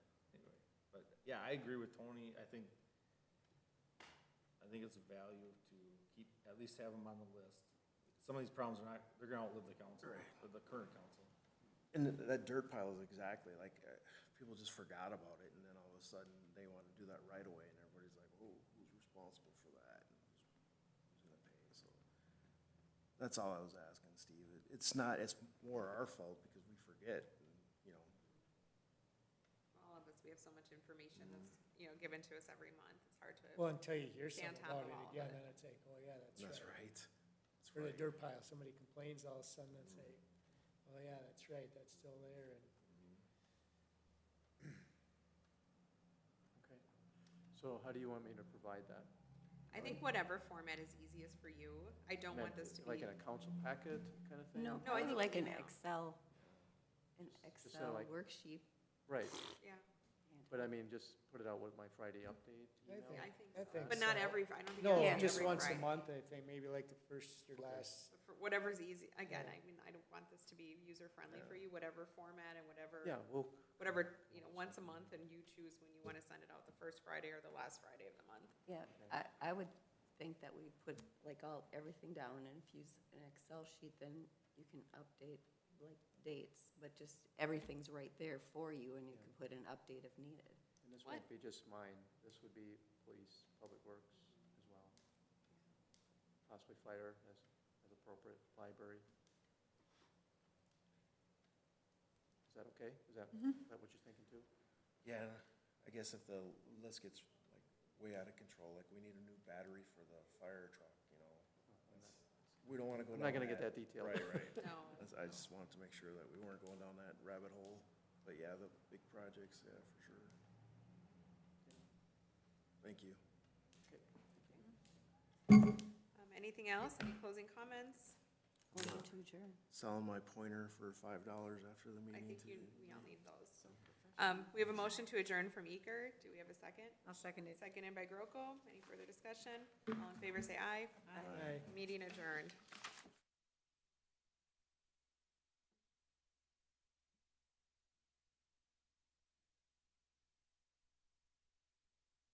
yeah, I agree with Tony, I think, I think it's a value to keep, at least have them on the list. Some of these problems are not, they're gonna outlive the council, or the current council. And th- that dirt pile is exactly like, uh, people just forgot about it and then all of a sudden they want to do that right away and everybody's like, oh, who's responsible for that? And Who's who's gonna pay? So that's all I was asking, Steve. It- It's not, it's more our fault because we forget, and, you know. all of us, we have so much information that's, you know, given to us every month, it's hard to. Mm-hmm. Well, until you hear Stay on something top of all about it of again, it. then it's like, oh, yeah, that's right. right. That's Or the right. dirt pile, somebody complains all of a sudden, it's like, oh, yeah, that's right, that's still there, and, Okay. So how do you want me to provide that? I think whatever format is easiest for you, I don't want this to be, Like in a council packet kind of thing? No, No, I probably think like an email. Excel, an Just so Excel like- worksheet. Right, yeah, but I mean, just put it out with my Friday update I email. think- yeah, I think, Oh, I so. think but not so. every, I don't think. it No, has to be just every once a Friday. month, I think, maybe like the first or last, For Whatever's easy, again, Yeah. I mean, I don't want this to be user-friendly for you, whatever format and whatever. Yeah, well, Whatever, you know, once a month, and you choose when you wanna send it out, the first Friday or the last Friday of the month. Yeah, I, I would think that we put like all, everything down and if you use an Excel sheet, then you can update like dates, but just everything's right there for you and you can put an update if needed. and this What? won't be just mine. This would be police, public works as well. Possibly fire as, as appropriate, library. Is that okay? Is that, Mm-hmm. is that what you're thinking too? Yeah, and I guess if the list gets like way out of control, like we need a new battery for the fire truck, you know. that's- We don't want to go I'm down not gonna get that detailed. Right, right. No, That's- I just wanted to make sure that we weren't going down that rabbit hole, but yeah, the big projects, yeah, for sure. Thank you. um, anything else, any closing comments? Motion to adjourn. Selling my pointer for five dollars after the I meeting think you, today. we all need those. Um, we have a motion to adjourn from Eker. Do we have a second? I'll second it. Seconded by Groko. Any further discussion? All in favor, say aye. Aye. Meeting adjourned.